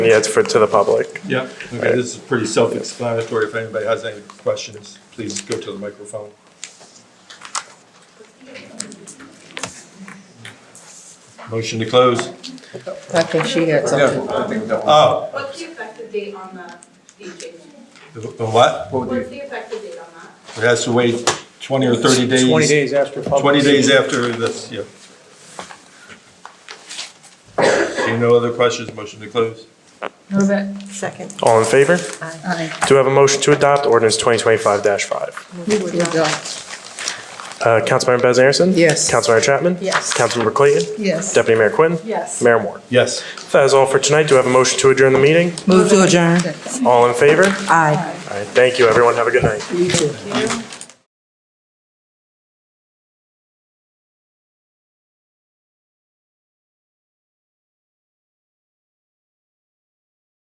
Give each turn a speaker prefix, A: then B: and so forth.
A: Yeah, it's for, to the public.
B: Yeah, okay, this is pretty self-explanatory. If anybody has any questions, please go to the microphone. Motion to close.
C: I think she had something.
B: Oh,
D: What's the effective date on the DJ?
B: the the what?
D: What's the effective date on that?
B: It has to wait 20 or 30 days?
E: 20 days after public.
B: 20 days after this, yeah. Seeing no other questions, motion to close.
C: Move it.
F: Second.
A: All in favor?
C: Aye.
A: Do we have a motion to adopt ordinance 2025-5?
C: Move it, John.
A: Uh, Councilmember Bez Anderson?
C: Yes.
A: Councilmember Chapman?
F: Yes.
A: Councilmember Clayton?
C: Yes.
A: Deputy Mayor Quinn?
F: Yes.
A: Mayor Moore?
B: Yes.
A: That is all for tonight. Do we have a motion to adjourn the meeting?
F: Move to adjourn.
A: All in favor?
F: Aye.
A: All right, thank you, everyone. Have a good night.
C: You too.